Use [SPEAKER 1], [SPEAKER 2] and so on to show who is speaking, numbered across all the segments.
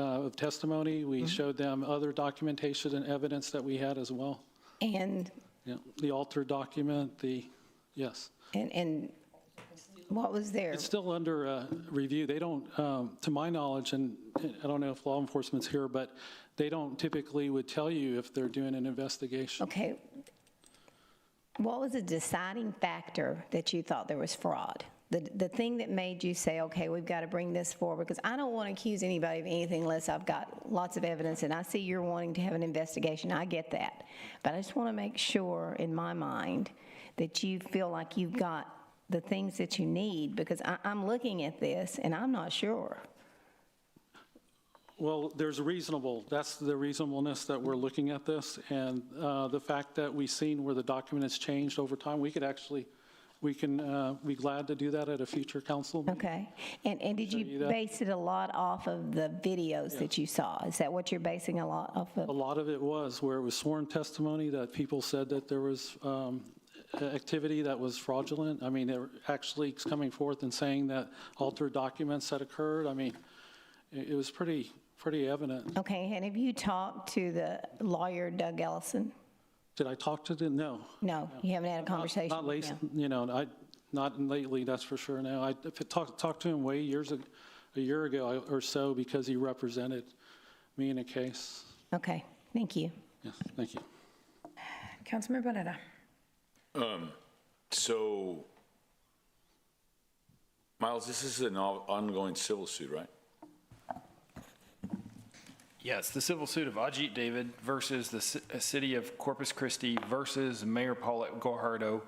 [SPEAKER 1] uh, of testimony. We showed them other documentation and evidence that we had as well.
[SPEAKER 2] And,
[SPEAKER 1] Yeah, The alter document, the, yes.
[SPEAKER 2] and, and what was there?
[SPEAKER 1] It's still under uh, review. They don't, um, to my knowledge, and I don't know if law enforcement's here, but they don't typically would tell you if they're doing an investigation.
[SPEAKER 2] Okay. What was the deciding factor that you thought there was fraud? The, the thing that made you say, okay, we've got to bring this forward? Because I don't want to accuse anybody of anything unless I've got lots of evidence, and I see you're wanting to have an investigation, I get that. But I just want to make sure, in my mind, that you feel like you've got the things that you need, because I, I'm looking at this and I'm not sure.
[SPEAKER 1] Well, there's reasonable, that's the reasonableness that we're looking at this, and uh, the fact that we've seen where the document has changed over time, we could actually, we can, uh, be glad to do that at a future council. meeting.
[SPEAKER 2] Okay. And, and did
[SPEAKER 1] you
[SPEAKER 2] you
[SPEAKER 1] that.
[SPEAKER 2] base it a lot off of the videos that you saw? Is that what you're basing a lot off
[SPEAKER 1] A
[SPEAKER 2] of?
[SPEAKER 1] lot of it was where it was sworn testimony that people said that there was um, a- activity that was fraudulent. I mean, they're actually coming forth and saying that altered documents had occurred. I mean, it it was pretty, pretty evident.
[SPEAKER 2] Okay, and have you talked to the lawyer Doug Ellison?
[SPEAKER 1] Did I talk to them? No.
[SPEAKER 2] No, you haven't had a
[SPEAKER 1] Not-
[SPEAKER 2] conversation?
[SPEAKER 1] Not
[SPEAKER 2] with
[SPEAKER 1] lately,
[SPEAKER 2] him?
[SPEAKER 1] you know, I, not lately, that's for sure now. I if it talked, talked to him way years, ag- a year ago or so because he represented me in a case.
[SPEAKER 2] Okay, thank you.
[SPEAKER 1] Yes, thank you.
[SPEAKER 3] Councilmember Bonetta.
[SPEAKER 4] So, Miles, this is an on- ongoing civil suit, right?
[SPEAKER 5] Yes, the civil suit of Ajit David versus the ci- uh, city of Corpus Christi versus Mayor Paulette Guajardo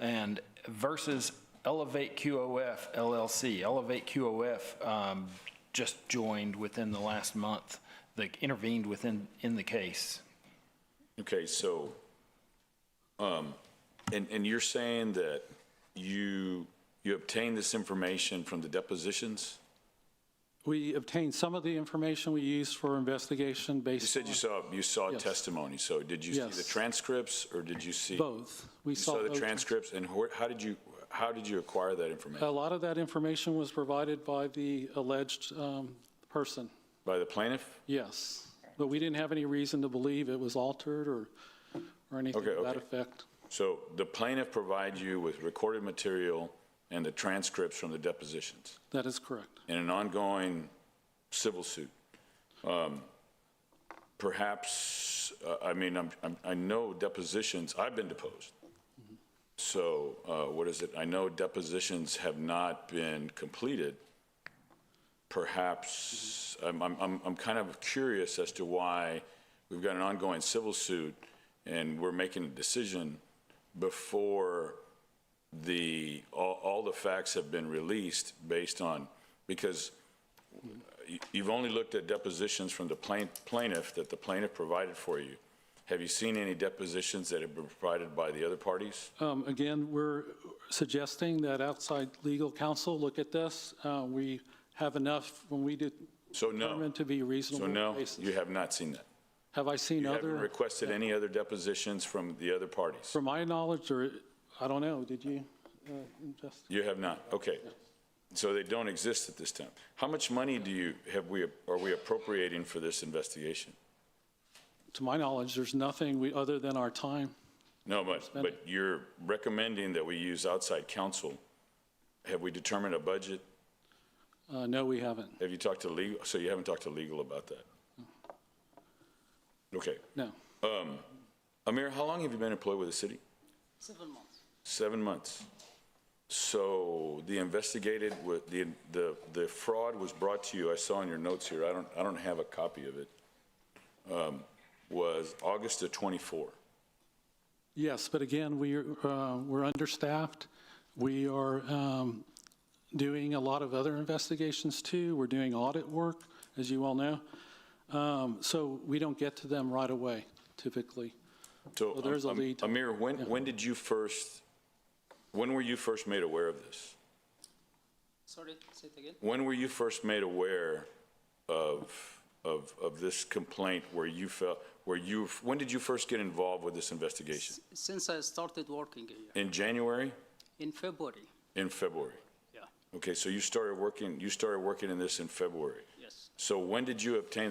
[SPEAKER 5] and versus Elevate QOF LLC. Elevate QOF um, just joined within the last month, They intervened within, in the case.
[SPEAKER 4] Okay, so, um, and, and you're saying that you, you obtained this information from the depositions?
[SPEAKER 1] We obtained some of the information we used for investigation
[SPEAKER 4] You
[SPEAKER 1] based
[SPEAKER 4] said you
[SPEAKER 1] on
[SPEAKER 4] saw, you saw
[SPEAKER 1] Yes.
[SPEAKER 4] testimony, so did you see the
[SPEAKER 1] Yes.
[SPEAKER 4] transcripts, or did you see?
[SPEAKER 1] both. We
[SPEAKER 4] You saw the
[SPEAKER 1] both.
[SPEAKER 4] transcripts, and wh- how did you, how did you acquire that
[SPEAKER 1] A
[SPEAKER 4] information?
[SPEAKER 1] lot of that information was provided by the alleged um, person,
[SPEAKER 4] By the plaintiff?
[SPEAKER 1] yes. But we didn't have any reason to believe it was altered or, or anything
[SPEAKER 4] Okay,
[SPEAKER 1] to that
[SPEAKER 4] okay.
[SPEAKER 1] effect.
[SPEAKER 4] So the plaintiff provided you with recorded material and the transcripts from the depositions?
[SPEAKER 1] That is correct.
[SPEAKER 4] in an ongoing civil suit. Um, Perhaps, uh, I mean, I'm- I'm- I know depositions, I've been deposed. So uh, what is it? I know depositions have not been completed. Perhaps, I'm- I'm I'm- I'm kind of curious as to why we've got an ongoing civil suit and we're making a decision before the, all, all the facts have been released based on, because you- you've only looked at depositions from the plain- plaintiff that the plaintiff provided for you. Have you seen any depositions that have been provided by the other parties?
[SPEAKER 1] Um, Again, we're suggesting that outside legal counsel look at this. Uh, We have enough when we did
[SPEAKER 4] So no.
[SPEAKER 1] determine to be
[SPEAKER 4] So
[SPEAKER 1] reasonable
[SPEAKER 4] no, you
[SPEAKER 1] basis.
[SPEAKER 4] have not seen that.
[SPEAKER 1] Have I seen
[SPEAKER 4] You haven't
[SPEAKER 1] other,
[SPEAKER 4] requested any other depositions from the other parties?
[SPEAKER 1] from my knowledge, or, I don't know, did you, uh, Justin?
[SPEAKER 4] You have not, okay. So they don't exist at this time. How much money do you, have we, are we appropriating for this investigation?
[SPEAKER 1] To my knowledge, there's nothing we, other than our time.
[SPEAKER 4] No, but, but you're recommending that we use outside counsel. Have we determined a budget?
[SPEAKER 1] Uh, No, we haven't.
[SPEAKER 4] Have you talked to legal, so you haven't talked to legal about that? Okay.
[SPEAKER 1] No.
[SPEAKER 4] Amir, how long have you been employed with the city? Seven months. Seven months. So the investigated, wa- the, the, the fraud was brought to you, I saw in your notes here, I don't, I don't have a copy of it, um, was August of 24.
[SPEAKER 1] Yes, but again, we, are, uh, we're understaffed. We are um, doing a lot of other investigations too. We're doing audit work, as you all know. Um, So we don't get to them right away typically.
[SPEAKER 4] So
[SPEAKER 1] Well, there's a
[SPEAKER 4] um,
[SPEAKER 1] lead.
[SPEAKER 4] Amir, when, when did you first, when were you first made aware of this?
[SPEAKER 6] Sorry, say it again.
[SPEAKER 4] When were you first made aware of, of, of this complaint where you felt, where you, when did you first get involved with this investigation?
[SPEAKER 6] Since I started working here
[SPEAKER 4] In January?
[SPEAKER 6] in February,
[SPEAKER 4] In February?
[SPEAKER 6] yeah,
[SPEAKER 4] Okay, so you started working, you started working in this in February.
[SPEAKER 6] yes.
[SPEAKER 4] So when did you obtain the